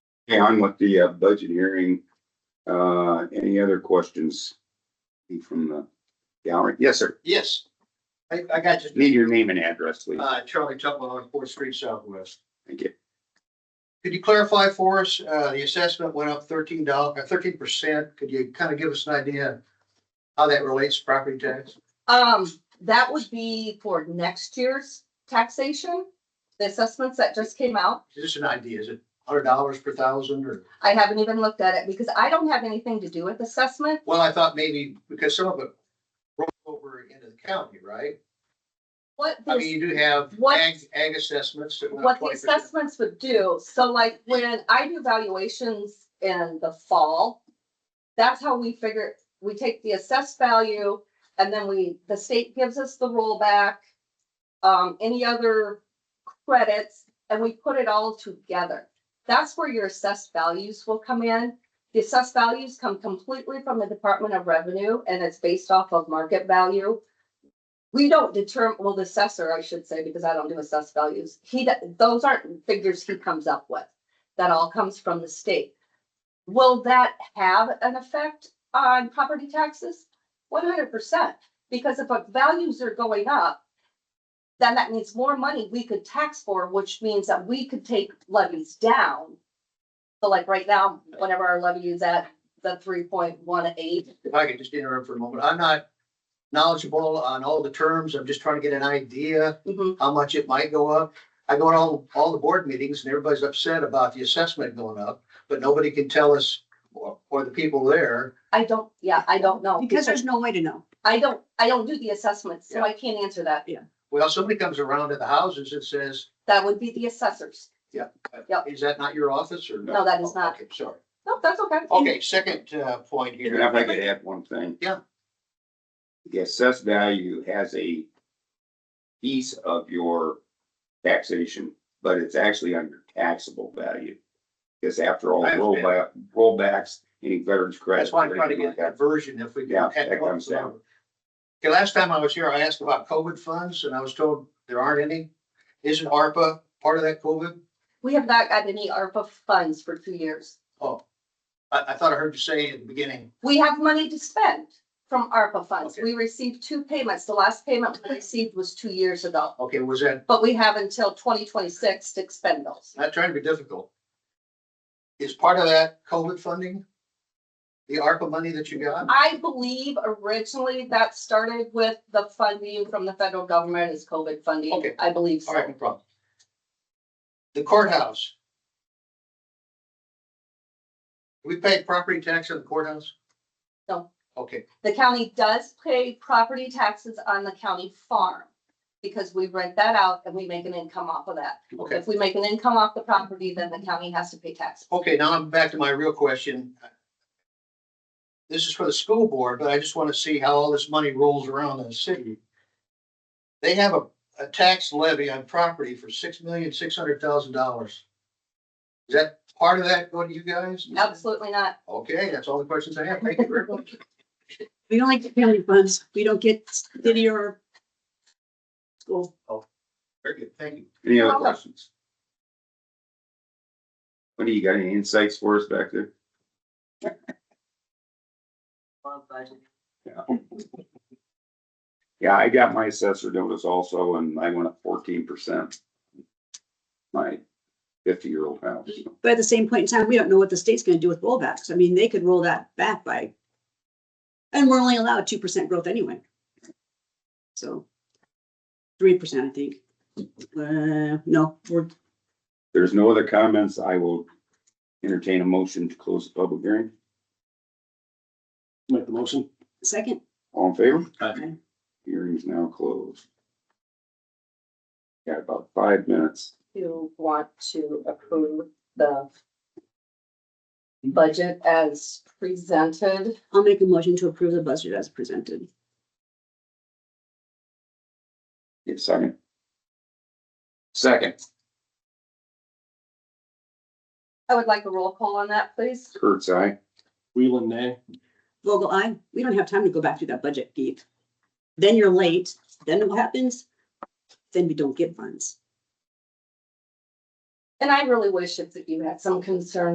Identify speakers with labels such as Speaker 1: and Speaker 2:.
Speaker 1: Okay, on with the uh, budget hearing. Uh, any other questions from the gallery? Yes, sir.
Speaker 2: Yes. I, I got you.
Speaker 1: Need your name and address, please.
Speaker 2: Uh, Charlie Tupman on Fourth Street Southwest.
Speaker 1: Thank you.
Speaker 2: Could you clarify for us, uh, the assessment went up thirteen dollars, thirteen percent. Could you kind of give us an idea how that relates to property tax?
Speaker 3: Um, that would be for next year's taxation, the assessments that just came out.
Speaker 2: Just an idea. Is it hundred dollars per thousand or?
Speaker 3: I haven't even looked at it because I don't have anything to do with assessment.
Speaker 2: Well, I thought maybe because some of it rolled over into the county, right?
Speaker 3: What
Speaker 2: I mean,
Speaker 3: this,
Speaker 2: you do have
Speaker 3: What-
Speaker 2: ag, ag assessments that went
Speaker 3: what
Speaker 2: up
Speaker 3: the
Speaker 2: twenty percent.
Speaker 3: assessments would do, so like when I do valuations in the fall, that's how we figure, we take the assessed value and then we, the state gives us the rollback, um, any other credits, and we put it all together. That's where your assessed values will come in. The assessed values come completely from the Department of Revenue and it's based off of market value. We don't determine, well, the assessor, I should say, because I don't do assessed values. He, do- those aren't figures he comes up with. That all comes from the state. Will that have an effect on property taxes? One hundred percent, because if our values are going up, then that means more money we could tax for, which means that we could take levies down. So like right now, whenever our levy is at the three point one eight,
Speaker 2: If I could just interrupt for a moment, I'm not knowledgeable on all the terms. I'm just trying to get an idea
Speaker 3: mm-hmm.
Speaker 2: how much it might go up. I go to all, all the board meetings and everybody's upset about the assessment going up, but nobody can tell us, or, or the people there.
Speaker 3: I don't, yeah, I don't know.
Speaker 4: Because there's no way to know.
Speaker 3: I don't, I don't do the assessments, so I can't answer that.
Speaker 2: Well, somebody comes around to the houses and says,
Speaker 3: That would be the assessors. Yep.
Speaker 2: is that not your office or?
Speaker 3: No, that is not.
Speaker 2: Okay, sorry.
Speaker 3: No, that's okay.
Speaker 2: Okay, second, uh, point here.
Speaker 1: If I could add one thing.
Speaker 2: Yeah.
Speaker 1: The assessed value has a piece of your taxation, but it's actually on your taxable value. Because after all,
Speaker 2: I understand.
Speaker 1: rollback, rollbacks, any veterans credit.
Speaker 2: That's why I'm trying to get that version if we. can
Speaker 1: Yeah,
Speaker 2: have
Speaker 1: that comes
Speaker 2: one.
Speaker 1: down.
Speaker 2: Okay, last time I was here, I asked about COVID funds and I was told there aren't any. Isn't ARPA part of that COVID?
Speaker 3: We have not got any ARPA funds for two years.
Speaker 2: Oh, I, I thought I heard you say at the beginning,
Speaker 3: We have money to spend from ARPA funds.
Speaker 2: Okay.
Speaker 3: We received two payments. The last payment we received was two years ago.
Speaker 2: okay, was that,
Speaker 3: But we have until twenty twenty-six to expend those.
Speaker 2: not trying to be difficult. Is part of that COVID funding? The ARPA money that you got?
Speaker 3: I believe originally that started with the funding from the federal government as COVID funding.
Speaker 2: Okay.
Speaker 3: I believe
Speaker 2: All right,
Speaker 3: so.
Speaker 2: no problem. The courthouse. We pay property tax on the courthouse?
Speaker 3: No.
Speaker 2: Okay,
Speaker 3: The county does pay property taxes on the county farm because we rent that out and we make an income off of that.
Speaker 2: okay.
Speaker 3: If we make an income off the property, then the county has to pay taxes.
Speaker 2: Okay, now I'm back to my real question. This is for the school board, but I just want to see how all this money rolls around in the city. They have a, a tax levy on property for six million, six hundred thousand dollars. Is that part of that going to you guys?
Speaker 3: Absolutely not.
Speaker 2: Okay, that's all the questions I have. Thank you very much.
Speaker 4: We don't like county funds. We don't get city or school.
Speaker 2: Very good, thank you.
Speaker 1: Any other
Speaker 3: Problem.
Speaker 1: questions? What do you got? Any insights for us back there? Yeah. Yeah, I got my assessor notice also and I went up fourteen percent. My fifty-year-old house. so.
Speaker 4: But at the same point in time, we don't know what the state's gonna do with rollbacks. I mean, they could roll that back by. And we're only allowed two percent growth anyway. So. Three percent, I think. Uh, no, we're,
Speaker 1: There's no other comments. I will entertain a motion to close the public hearing.
Speaker 5: Make the motion.
Speaker 4: second,
Speaker 1: All in favor?
Speaker 4: Aye.
Speaker 1: Hearing is now closed. Got about five minutes.
Speaker 3: You want to approve the budget as presented.
Speaker 4: I'll make a motion to approve the budget as presented.
Speaker 1: Give a second. Second,
Speaker 3: I would like a roll call on that, please.
Speaker 1: Kurt's eye.
Speaker 5: Wheeling, nay.
Speaker 4: Vogel, I, we don't have time to go back through that budget deep. Then you're late, then what happens? Then we don't get funds.
Speaker 3: And I really wish if that you had some concern